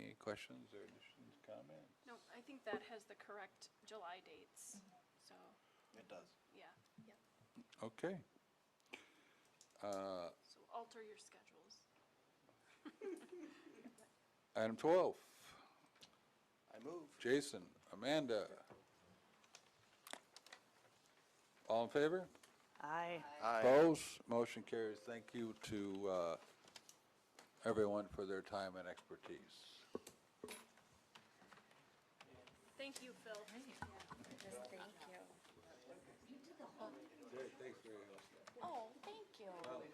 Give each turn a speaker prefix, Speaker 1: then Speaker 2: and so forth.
Speaker 1: questions or additions, comments?
Speaker 2: No, I think that has the correct July dates, so,
Speaker 3: It does.
Speaker 2: yeah. Yep.
Speaker 1: Okay. Uh,
Speaker 2: So alter your schedules.
Speaker 1: Item 12,
Speaker 3: I move.
Speaker 1: Jason, Amanda. All in favor?
Speaker 4: Aye.
Speaker 1: Opposed? Motion carries. Thank you to uh, everyone for their time and expertise.
Speaker 2: Thank you, Phil.
Speaker 5: Just thank you.
Speaker 1: Thanks very much.